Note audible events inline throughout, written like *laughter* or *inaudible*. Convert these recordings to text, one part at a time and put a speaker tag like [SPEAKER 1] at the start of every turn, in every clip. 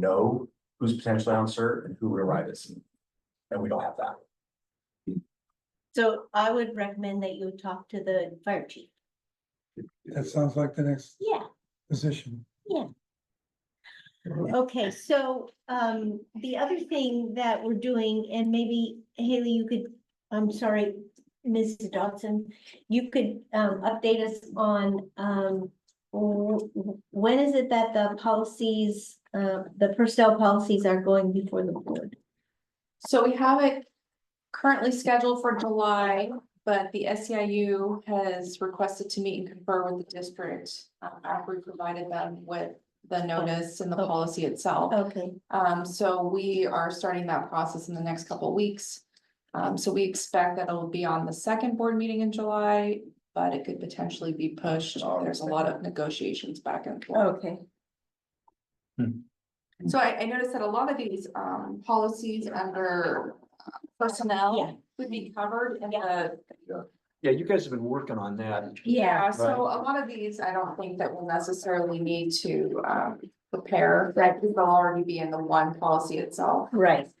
[SPEAKER 1] know who's potentially on cert and who would arrive at scene. And we don't have that.
[SPEAKER 2] So I would recommend that you talk to the fire chief.
[SPEAKER 3] That sounds like the next
[SPEAKER 2] Yeah,
[SPEAKER 3] position.
[SPEAKER 2] okay, so um, the other thing that we're doing, and maybe Haley, you could, I'm sorry, Mrs. Dodson, you could um, update us on um, w- w- when is it that the policies, uh, the personnel policies are going before the board?
[SPEAKER 4] So we have it currently scheduled for July, but the SEIU has requested to meet and confer with the district. um, after we provided them with the notice and the
[SPEAKER 2] Oh.
[SPEAKER 4] policy itself.
[SPEAKER 2] Okay,
[SPEAKER 4] Um, so we are starting that process in the next couple of weeks. Um, so we expect that it'll be on the second board meeting in July, but it could potentially be pushed. There's a lot of negotiations back and forth.
[SPEAKER 2] okay, Oh.
[SPEAKER 4] So I, I noticed that a lot of these, um, policies under uh,
[SPEAKER 2] Yeah.
[SPEAKER 4] personnel would be covered in the.
[SPEAKER 5] Yeah, you guys have been working on that.
[SPEAKER 2] yeah,
[SPEAKER 5] Right.
[SPEAKER 4] So a lot of these, I don't think that we'll necessarily need to, um, prepare, that because they'll already be in the one policy itself.
[SPEAKER 2] right,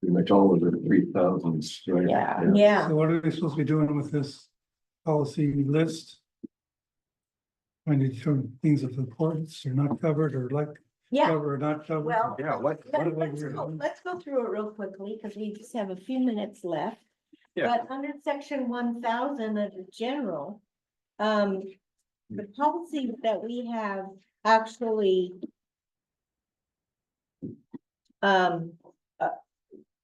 [SPEAKER 6] Pretty much all of the three thousands, right?
[SPEAKER 4] Yeah.
[SPEAKER 2] yeah,
[SPEAKER 3] So what are we supposed to be doing with this policy list? When you determine things of importance are not covered or like
[SPEAKER 2] yeah.
[SPEAKER 3] covered or not covered.
[SPEAKER 2] Well-
[SPEAKER 5] Yeah, what,
[SPEAKER 3] What
[SPEAKER 2] Let-
[SPEAKER 3] do I
[SPEAKER 2] Let's
[SPEAKER 3] hear?
[SPEAKER 2] go, let's go through it real quickly, because we just have a few minutes left.
[SPEAKER 5] Yeah.
[SPEAKER 2] But under section one thousand of the general, um, the
[SPEAKER 3] Hmm.
[SPEAKER 2] policies that we have actually um, uh,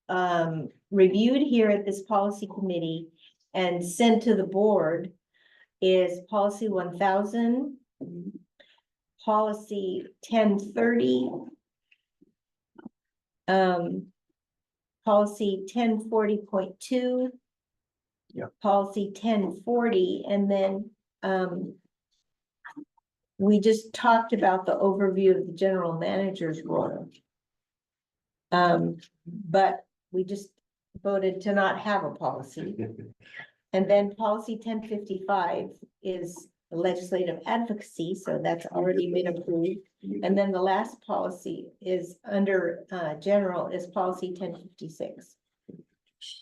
[SPEAKER 2] um, reviewed here at this policy committee and sent to the board is policy one thousand,
[SPEAKER 3] Hmm.
[SPEAKER 2] policy ten thirty, um, policy ten forty point two.
[SPEAKER 5] Yeah.
[SPEAKER 2] Policy ten forty, and then, um, we just talked about the overview of the general manager's role. Um, but we just voted to not have a policy. And then policy ten fifty-five is legislative advocacy, so that's already been approved. And then the last policy is under uh general is policy ten fifty-six.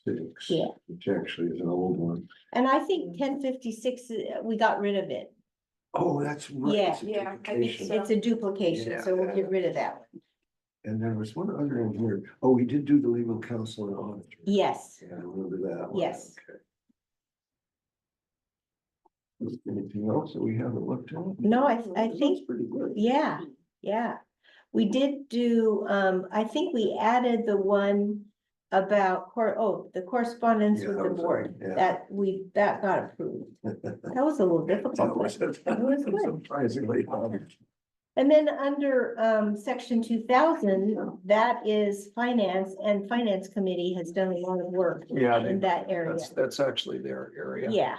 [SPEAKER 6] Six.
[SPEAKER 2] Yeah.
[SPEAKER 6] Which actually is an old one.
[SPEAKER 2] And I
[SPEAKER 6] Mm.
[SPEAKER 2] think ten fifty-six, uh, we got rid of it.
[SPEAKER 6] Oh, that's right.
[SPEAKER 2] Yeah.
[SPEAKER 6] it's a
[SPEAKER 4] Yeah, I think
[SPEAKER 6] duplication.
[SPEAKER 4] so.
[SPEAKER 2] It's a duplication, so we'll get rid of that one.
[SPEAKER 6] And there was one other in here. Oh, we did do the legal counsel and auditor.
[SPEAKER 2] Yes,
[SPEAKER 6] Yeah, I remember that. one.
[SPEAKER 2] Yes.
[SPEAKER 6] Okay. Is there Anything else that we haven't looked at?
[SPEAKER 2] No, I- I
[SPEAKER 6] That's
[SPEAKER 2] think-
[SPEAKER 6] Pretty good.
[SPEAKER 2] yeah, yeah. We did do, um, I think we added the one about cor- oh, the correspondence
[SPEAKER 6] Yeah,
[SPEAKER 2] with
[SPEAKER 6] that
[SPEAKER 2] the
[SPEAKER 6] was a-
[SPEAKER 2] board.
[SPEAKER 6] yeah.
[SPEAKER 2] That we, that got approved.
[SPEAKER 6] *laughs*
[SPEAKER 2] That was a little difficult. but- was good.
[SPEAKER 6] Surprisingly. um,
[SPEAKER 2] And then under um section two thousand, that is finance and finance committee has done a lot of work
[SPEAKER 5] Yeah, they-
[SPEAKER 2] in that area.
[SPEAKER 5] that's, that's actually their area.
[SPEAKER 2] Yeah,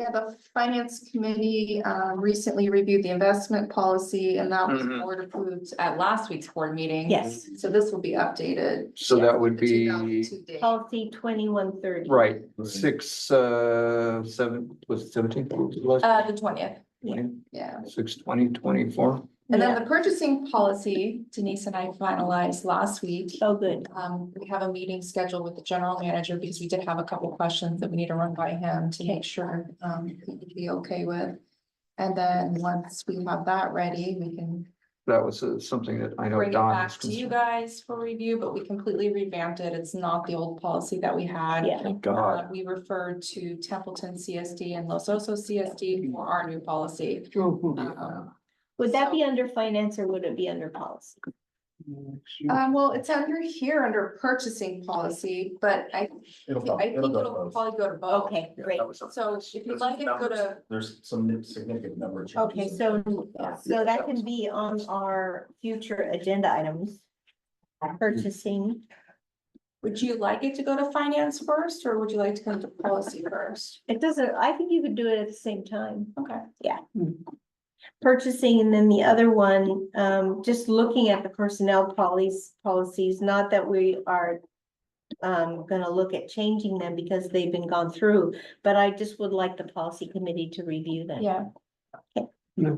[SPEAKER 4] Yeah, the finance committee, um, recently reviewed the investment policy and that was
[SPEAKER 5] Mhm.
[SPEAKER 4] board approved at last week's board meeting.
[SPEAKER 2] yes,
[SPEAKER 4] So this will be updated.
[SPEAKER 5] So that would
[SPEAKER 4] to the
[SPEAKER 5] be,
[SPEAKER 4] 2002 date.
[SPEAKER 2] policy twenty-one thirty.
[SPEAKER 5] right, six, uh, seven, was it seventeen?
[SPEAKER 4] Uh, the twentieth,
[SPEAKER 2] yeah.
[SPEAKER 4] yeah.
[SPEAKER 5] Six, twenty, twenty-four.
[SPEAKER 4] And then the purchasing policy Denise and I finalized last week.
[SPEAKER 2] Oh, good,
[SPEAKER 4] Um, we have a meeting scheduled with the general manager because we did have a couple questions that we need to run by him to make sure, um, he would be okay with. And then once we have that ready, we can
[SPEAKER 5] That was uh, something that I know
[SPEAKER 4] bring it
[SPEAKER 5] Don.
[SPEAKER 4] back
[SPEAKER 5] was
[SPEAKER 4] to you
[SPEAKER 5] concerned-
[SPEAKER 4] guys for review, but we completely revamped it. It's not the old policy that we had.
[SPEAKER 2] yeah,
[SPEAKER 5] Thank
[SPEAKER 4] Uh,
[SPEAKER 5] Oh, God.
[SPEAKER 4] we refer to Templeton CSD and Los Osos CSD for our new policy. Um,
[SPEAKER 2] would that be under finance or would it be under policy?
[SPEAKER 4] Um, well, it's under here, under purchasing policy, but I,
[SPEAKER 1] It'll
[SPEAKER 4] I think it'll probably go to both.
[SPEAKER 2] Okay,
[SPEAKER 5] Yeah,
[SPEAKER 2] great,
[SPEAKER 5] that was a-
[SPEAKER 4] So if you'd like it, go to,
[SPEAKER 1] There's some significant number. of changes.
[SPEAKER 2] okay, so, so that can be on our future agenda items. Purchasing,
[SPEAKER 4] would you like it to go to finance first, or would you like to go to policy first?
[SPEAKER 2] it doesn't, I think you could do it at the same time.
[SPEAKER 4] Okay,
[SPEAKER 2] purchasing, and then the other one, um, just looking at the personnel policies, policies, not that we are um, gonna look at changing them because they've been gone through, but I just would like the policy committee to review them.
[SPEAKER 4] yeah.